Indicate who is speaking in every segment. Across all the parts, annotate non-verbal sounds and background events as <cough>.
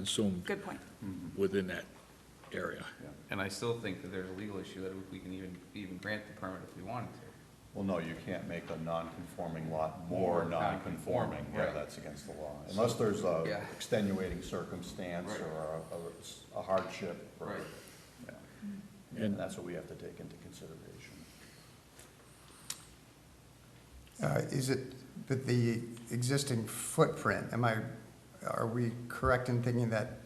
Speaker 1: consumed
Speaker 2: Good point.
Speaker 1: within that area.
Speaker 3: And I still think that there's a legal issue that we can even, even grant the permit if we wanted to.
Speaker 4: Well, no, you can't make a non-conforming lot more
Speaker 3: More
Speaker 4: non-conforming.
Speaker 3: non-conforming,
Speaker 4: Yeah,
Speaker 3: right.
Speaker 4: that's against the law. Unless there's a
Speaker 3: Yeah.
Speaker 4: extenuating circumstance
Speaker 3: Right.
Speaker 4: or a- a- a hardship. or-
Speaker 3: Right.
Speaker 4: yeah.
Speaker 1: And-
Speaker 4: And that's what we have to take into consideration.
Speaker 5: Uh, Is it, but the existing footprint, am I, are we correct in thinking that,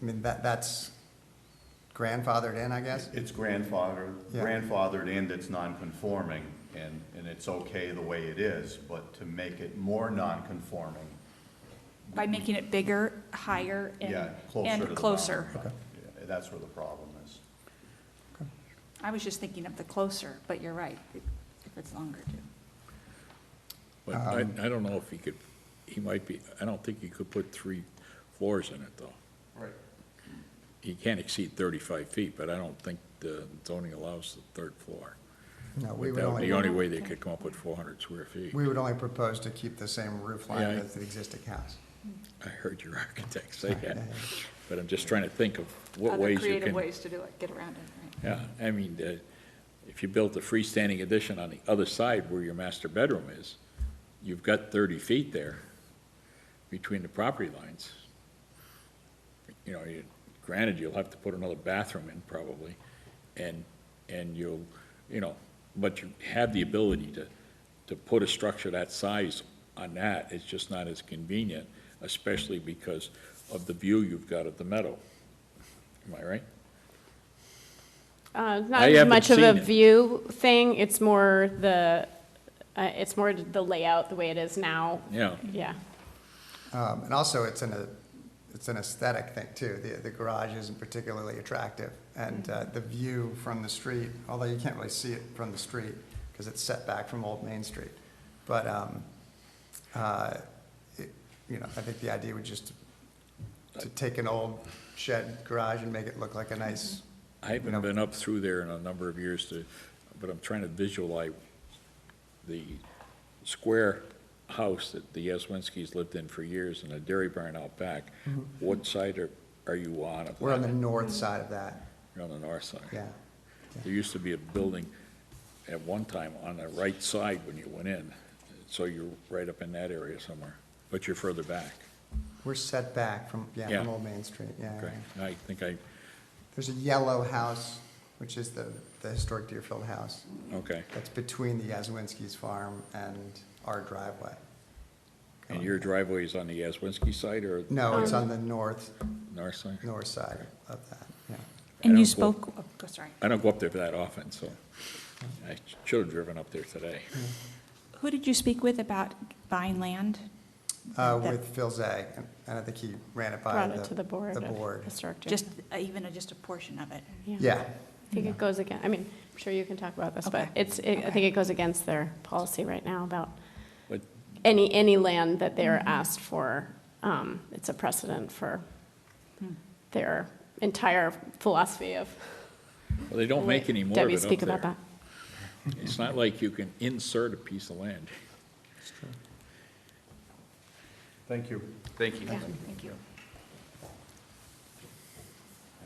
Speaker 5: I mean, that, that's grandfathered in, I guess?
Speaker 4: It's grandfathered,
Speaker 5: Yeah.
Speaker 4: grandfathered and it's non-conforming, and, and it's okay the way it is, but to make it more non-conforming,
Speaker 2: By making it bigger, higher,
Speaker 4: yeah,
Speaker 2: and,
Speaker 4: closer to the
Speaker 2: and
Speaker 4: boundary.
Speaker 2: closer.
Speaker 4: line. Yeah, That's where the problem is.
Speaker 2: I was just thinking of the closer, but you're right, if it's longer too.
Speaker 1: But I,
Speaker 5: Um,
Speaker 1: I don't know if he could, he might be, I don't think he could put three floors in it, though.
Speaker 3: Right.
Speaker 1: He can't exceed thirty-five feet, but I don't think the zoning allows the third floor.
Speaker 5: No, we
Speaker 1: But that
Speaker 5: would
Speaker 1: would be
Speaker 5: only,
Speaker 1: the only way they could come up with four hundred square feet.
Speaker 5: we would only propose to keep the same roof line
Speaker 1: Yeah.
Speaker 5: as the existing house.
Speaker 1: I heard your <laughs> architect
Speaker 5: <laughs>
Speaker 1: say that, but I'm just trying to think of what
Speaker 2: Other
Speaker 1: ways you
Speaker 2: creative
Speaker 1: can.
Speaker 2: ways to do it, get around it,
Speaker 1: Yeah, I mean, the- if you built a freestanding addition on the other side where your master bedroom is, you've got thirty feet there between the property lines. You know, you- granted, you'll have to put another bathroom in probably, and, and you'll, you know, but you have the ability to, to put a structure that size on that, it's just not as convenient, especially because of the view you've got of the meadow. Am I right?
Speaker 6: Uh, it's
Speaker 1: I
Speaker 6: Not as
Speaker 1: haven't
Speaker 6: much of a
Speaker 1: seen it.
Speaker 6: view thing, it's more the, uh, it's more the layout, the way it is now.
Speaker 1: Yeah.
Speaker 6: Yeah.
Speaker 5: Um, And also, it's an, uh, it's an aesthetic thing, too. The, the garage isn't particularly attractive, and uh, the view from the street, although you can't really see it from the street, because it's set back from Old Main Street. But, um, uh, it- you know, I think the idea would just to take an old shed garage and make it look like a nice,
Speaker 1: I haven't
Speaker 5: know?
Speaker 1: been up through there in a number of years to, but I'm trying to visualize the square house that the Yaswinskis lived in for years and the dairy barn out back. What side are, are you on of that?
Speaker 5: Mm-hmm. we're on the
Speaker 1: Mm-hmm.
Speaker 5: north side of that,
Speaker 1: You're on the north side.
Speaker 5: yeah.
Speaker 1: There used to be a building at one time on the right side when you went in, so you're right up in that area somewhere, but you're further back.
Speaker 5: We're set back from, yeah, from
Speaker 1: Yeah.
Speaker 5: Old Main Street, yeah.
Speaker 1: Okay, I think I,
Speaker 5: There's a yellow house, which is the, the historic Deerfield house.
Speaker 1: okay,
Speaker 5: That's between the Yazwinski's farm and our driveway.
Speaker 1: and your driveway is on the Yaswinski side or
Speaker 5: No, it's
Speaker 6: Um,
Speaker 5: on the north,
Speaker 1: north side?
Speaker 5: north side of that, yeah.
Speaker 1: And
Speaker 2: And
Speaker 1: you
Speaker 2: you
Speaker 1: don't go-
Speaker 2: spoke, oh, sorry.
Speaker 1: I don't go up there that often, so I should have driven up there today.
Speaker 2: Who did you speak with about buying land?
Speaker 5: Uh,
Speaker 2: That-
Speaker 5: with Phil Zag, and I think he ran it by the.
Speaker 6: Brought it to the board.
Speaker 5: The
Speaker 6: of
Speaker 5: board.
Speaker 6: Historic
Speaker 2: Just,
Speaker 6: District.
Speaker 2: uh, even uh, just a portion of it.
Speaker 5: Yeah,
Speaker 6: I think it goes again, I mean, I'm sure you can talk about this, but
Speaker 2: Okay.
Speaker 6: it's, it- I think it goes against their policy right now about
Speaker 1: But
Speaker 6: any, any land that they're
Speaker 2: Mm-hmm.
Speaker 6: asked for. Um, It's a precedent for
Speaker 2: Hmm.
Speaker 6: their entire philosophy of.
Speaker 1: well, they don't make any more of
Speaker 6: Debbie,
Speaker 1: it
Speaker 6: speak
Speaker 1: up
Speaker 6: about
Speaker 1: there.
Speaker 6: that.
Speaker 1: It's not like you can insert a piece of land.
Speaker 4: Thank you.
Speaker 3: Thank you.
Speaker 2: Yeah, thank you.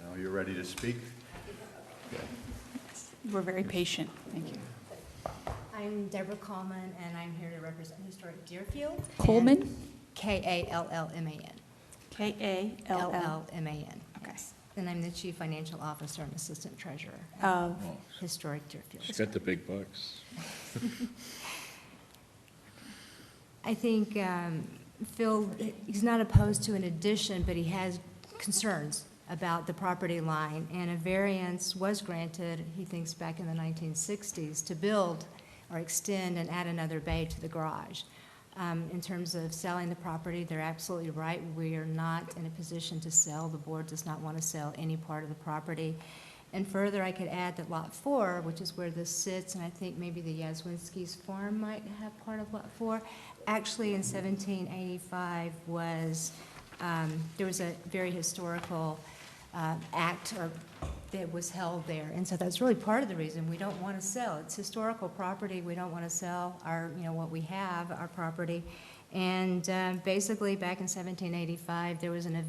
Speaker 4: Now, you're ready to speak?
Speaker 2: You were very patient, thank you.
Speaker 7: I'm Deborah Coleman, and I'm here to represent historic Deerfield. and-
Speaker 2: Coleman?
Speaker 7: K-A-L-L-M-A-N.
Speaker 2: K-A-L-L.
Speaker 7: L-L-M-A-N.
Speaker 2: Okay.
Speaker 7: yes. And I'm the Chief Financial Officer and Assistant Treasurer at
Speaker 2: Of,
Speaker 7: historic Deerfield.
Speaker 1: Oh, She's got the big bucks.
Speaker 7: I think um, Phil, he's not opposed to an addition, but he has concerns about the property line, and a variance was granted, he thinks, back in the 1960s, to build or extend and add another bay to the garage. Um, In terms of selling the property, they're absolutely right, we are not in a position to sell, the board does not want to sell any part of the property. And further, I could add that Lot 4, which is where this sits, and I think maybe the Yazwinski's farm might have part of Lot 4, actually in 1785 was, um, there was a very historical uh, act or that was held there. And so that's really part of the reason we don't want to sell. It's historical property, we don't want to sell our, you know, what we have, our property. And uh, basically, back in 1785, there was an event